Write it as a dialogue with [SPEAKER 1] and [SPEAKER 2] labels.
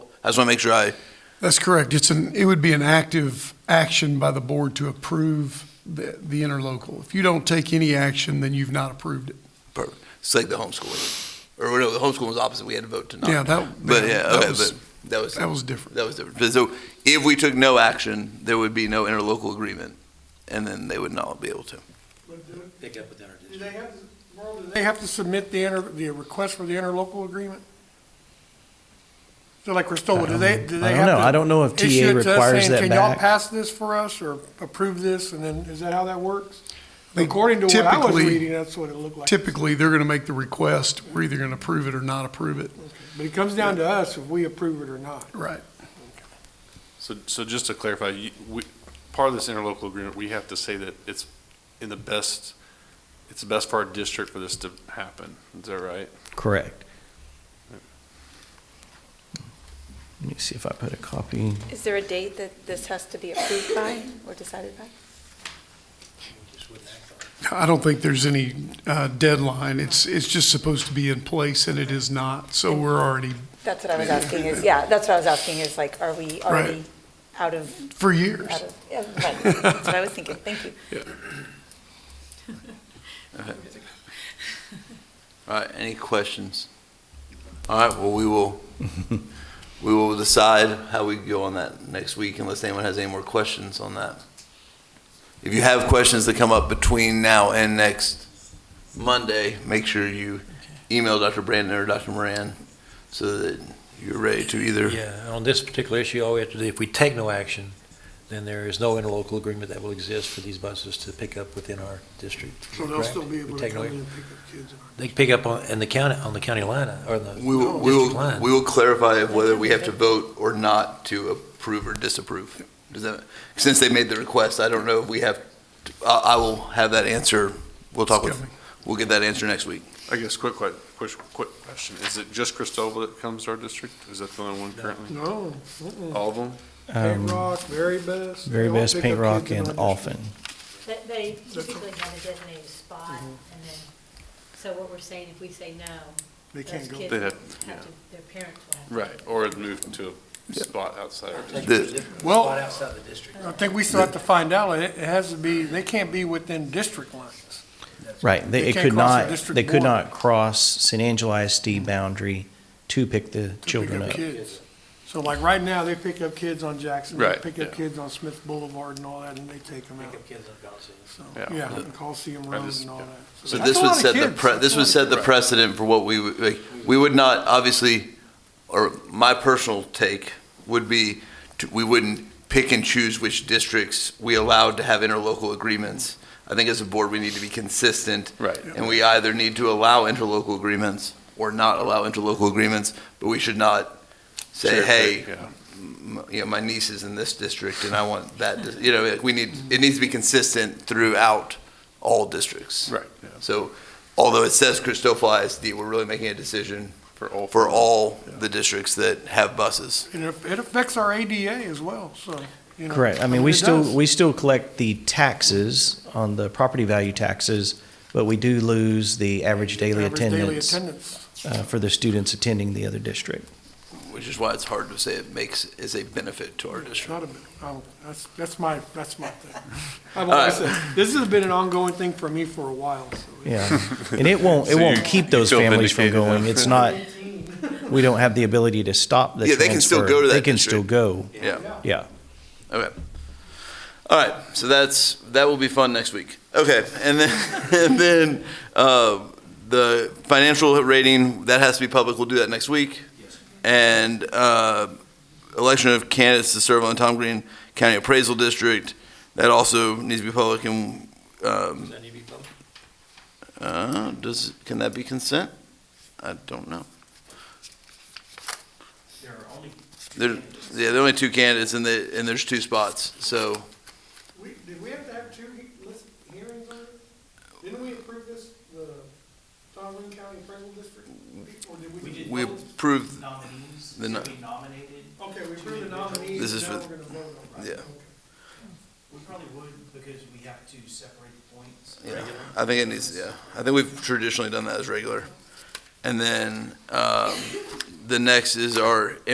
[SPEAKER 1] I just want to make sure I,
[SPEAKER 2] That's correct. It's an, it would be an active action by the board to approve the, the interlocal. If you don't take any action, then you've not approved it.
[SPEAKER 1] it's like the homeschooling, or no, the homeschooling was opposite, we had to vote to not.
[SPEAKER 2] Yeah, that,
[SPEAKER 1] But yeah,
[SPEAKER 2] that
[SPEAKER 1] okay,
[SPEAKER 2] was,
[SPEAKER 1] but that was,
[SPEAKER 2] that was different.
[SPEAKER 1] that was different. But So if we took no action, there would be no interlocal agreement, and then they would not be able to.
[SPEAKER 3] pick up with our
[SPEAKER 4] Do they have, Merle, do they have to submit the inter, the request for the interlocal agreement? So like Cristola, do they, do they
[SPEAKER 5] I don't
[SPEAKER 4] have
[SPEAKER 5] know.
[SPEAKER 4] to
[SPEAKER 5] I don't know if TA
[SPEAKER 4] issue it to us
[SPEAKER 5] requires
[SPEAKER 4] saying,
[SPEAKER 5] that
[SPEAKER 4] Can y'all
[SPEAKER 5] back."
[SPEAKER 4] pass this for us or approve this? And then, is that how that works? According to what I was
[SPEAKER 2] Typically-
[SPEAKER 4] reading, that's what it looked like.
[SPEAKER 2] Typically, they're going to make the request. We're either going to approve it or not approve it.
[SPEAKER 4] But it comes down to us if we approve it or not.
[SPEAKER 2] Right.
[SPEAKER 6] So, so just to clarify, you, we, part of this interlocal agreement, we have to say that it's in the best, it's the best for our district for this to happen. Is that right?
[SPEAKER 5] Correct. Let me see if I put a copy.
[SPEAKER 7] Is there a date that this has to be approved by or decided by?
[SPEAKER 2] I don't think there's any uh, deadline. It's, it's just supposed to be in place, and it is not. So we're already,
[SPEAKER 7] That's what I was asking is, yeah, that's what I was asking is like, are we already out of,
[SPEAKER 2] for years.
[SPEAKER 7] out of, yeah, right. That's what I was thinking. Thank you.
[SPEAKER 1] All right, any questions? All right, well, we will, we will decide how we go on that next week unless anyone has any more questions on that. If you have questions that come up between now and next Monday, make sure you email Dr. Brandon or Dr. Moran so that you're ready to either,
[SPEAKER 3] Yeah, on this particular issue, all we have to do, if we take no action, then there is no interlocal agreement that will exist for these buses to pick up within our district.
[SPEAKER 4] So they'll still be
[SPEAKER 3] Correct?
[SPEAKER 4] able
[SPEAKER 3] We
[SPEAKER 4] to
[SPEAKER 3] take
[SPEAKER 4] come
[SPEAKER 3] no-
[SPEAKER 4] in and pick up kids. in our-
[SPEAKER 3] They can pick up on, in the county, on the county line, uh, or the
[SPEAKER 1] we will, we
[SPEAKER 3] district
[SPEAKER 1] will,
[SPEAKER 3] line.
[SPEAKER 1] we will clarify whether we have to vote or not to approve or disapprove. Does that, since they made the request, I don't know if we have, I, I will have that answer. We'll talk with, we'll get that answer next week.
[SPEAKER 6] I guess, quick, que- quick, quick question. Is it just Cristobal that comes to our district? Is that the only one currently?
[SPEAKER 4] No, mm-mm.
[SPEAKER 6] All of them?
[SPEAKER 5] Um,
[SPEAKER 4] Paint Rock, Very Best. they
[SPEAKER 5] Very
[SPEAKER 4] all
[SPEAKER 5] best
[SPEAKER 4] pick
[SPEAKER 5] paint
[SPEAKER 4] up
[SPEAKER 5] rock
[SPEAKER 4] kids in
[SPEAKER 5] and
[SPEAKER 4] our district.
[SPEAKER 5] often.
[SPEAKER 8] They- They typically have a designated spot,
[SPEAKER 4] Mm-hmm.
[SPEAKER 8] and then, so what we're saying, if we say no,
[SPEAKER 4] They
[SPEAKER 8] those
[SPEAKER 4] can't go.
[SPEAKER 8] kids
[SPEAKER 6] They'd
[SPEAKER 8] have
[SPEAKER 6] have-
[SPEAKER 8] to, their parents will have to.
[SPEAKER 6] Right, or it moved to a spot outside our district.
[SPEAKER 1] The-
[SPEAKER 4] Well-
[SPEAKER 3] Spot outside the district.
[SPEAKER 4] I think we still have to find out. It it has to be, they can't be within district lines.
[SPEAKER 5] Right,
[SPEAKER 4] They
[SPEAKER 5] they, it
[SPEAKER 4] can't
[SPEAKER 5] could
[SPEAKER 4] cross the
[SPEAKER 5] not,
[SPEAKER 4] district
[SPEAKER 5] they could
[SPEAKER 4] border.
[SPEAKER 5] not cross San Angelo ISD boundary to pick the
[SPEAKER 4] to
[SPEAKER 5] children
[SPEAKER 4] pick
[SPEAKER 5] up.
[SPEAKER 4] kids. So like right now, they pick up kids on Jackson, they
[SPEAKER 6] Right,
[SPEAKER 4] pick up
[SPEAKER 6] yeah.
[SPEAKER 4] kids on Smith Boulevard and all that, and they take them
[SPEAKER 3] Pick
[SPEAKER 4] out.
[SPEAKER 3] up kids on Gossip.
[SPEAKER 4] So,
[SPEAKER 6] Yeah.
[SPEAKER 4] yeah, and Coliseum
[SPEAKER 6] I
[SPEAKER 4] Road
[SPEAKER 6] just-
[SPEAKER 4] and all
[SPEAKER 6] yeah.
[SPEAKER 4] that.
[SPEAKER 1] So
[SPEAKER 4] that's
[SPEAKER 1] this
[SPEAKER 4] a
[SPEAKER 1] would
[SPEAKER 4] lot of
[SPEAKER 1] set the,
[SPEAKER 4] kids.
[SPEAKER 1] pre-
[SPEAKER 4] That's
[SPEAKER 1] this
[SPEAKER 4] a lot
[SPEAKER 1] would
[SPEAKER 4] of
[SPEAKER 1] set the
[SPEAKER 4] kids.
[SPEAKER 1] precedent for what we, would- like, we would not, obviously, or my personal take would be, to- we wouldn't pick and choose which districts we allowed to have interlocal agreements. I think as a board, we need to be consistent.
[SPEAKER 6] Right.
[SPEAKER 1] And we either need to allow interlocal agreements or not allow interlocal agreements, but we should not say,
[SPEAKER 6] Sure,
[SPEAKER 1] hey,
[SPEAKER 6] yeah.
[SPEAKER 1] m- you know, my niece is in this district and I want that, dis-" you know, like, we need, it needs to be consistent throughout all districts.
[SPEAKER 6] Right, yeah,
[SPEAKER 1] So although it says Cristobal ISD, we're really making a decision
[SPEAKER 6] for all.
[SPEAKER 1] for all the districts that have buses.
[SPEAKER 4] And it it affects our ADA as well, so, you know.
[SPEAKER 5] Correct, I mean, we
[SPEAKER 4] it
[SPEAKER 5] still,
[SPEAKER 4] does.
[SPEAKER 5] we still collect the taxes on the property value taxes, but we do lose the average daily
[SPEAKER 4] Average daily
[SPEAKER 5] attendance
[SPEAKER 4] attendance.
[SPEAKER 5] uh, for the students attending the other district.
[SPEAKER 1] Which is why it's hard to say it makes, is a benefit to our
[SPEAKER 4] It's
[SPEAKER 1] district.
[SPEAKER 4] not a bit- oh, that's, that's my, that's my thing. I've
[SPEAKER 1] right.
[SPEAKER 4] always said, this has been an ongoing thing for me for a while, so.
[SPEAKER 5] Yeah, and it won't, it
[SPEAKER 6] So
[SPEAKER 5] won't
[SPEAKER 6] you-
[SPEAKER 5] keep
[SPEAKER 6] you
[SPEAKER 5] those
[SPEAKER 6] feel
[SPEAKER 5] families from
[SPEAKER 6] vindicated
[SPEAKER 5] going.
[SPEAKER 6] now.
[SPEAKER 5] It's not, we don't have the ability to stop the
[SPEAKER 1] Yeah,
[SPEAKER 5] transfer.
[SPEAKER 1] they can still go to
[SPEAKER 5] They
[SPEAKER 1] that
[SPEAKER 5] can still
[SPEAKER 1] district.
[SPEAKER 5] go,
[SPEAKER 1] Yeah,
[SPEAKER 5] yeah.
[SPEAKER 1] okay. All right, so that's, that will be fun next week. Okay, and then, and then, uh, the financial rating, that has to be public, we'll do that next week. And, uh, election of candidates to serve on Tom Green County Appraisal District, that also needs to be public and, um,
[SPEAKER 3] Does that need to be public?
[SPEAKER 1] Uh, does, can that be consent? I don't know. There are only. There, yeah, there are only two candidates and the, and there's two spots, so,
[SPEAKER 4] Did we have to have two hearings on it? Didn't we approve this, the Tomlin County Appraisal District? Or did we?
[SPEAKER 1] we approved,
[SPEAKER 9] nominees
[SPEAKER 1] The no-
[SPEAKER 9] to be nominated.
[SPEAKER 4] Okay, we approved the nominees.
[SPEAKER 1] This is now for-
[SPEAKER 4] we're gonna vote on
[SPEAKER 1] it. Yeah. Okay.
[SPEAKER 9] We probably would because we have to separate the points.
[SPEAKER 1] yeah, I think it needs, yeah, I think we've traditionally done that as regular. And then, um, the next is our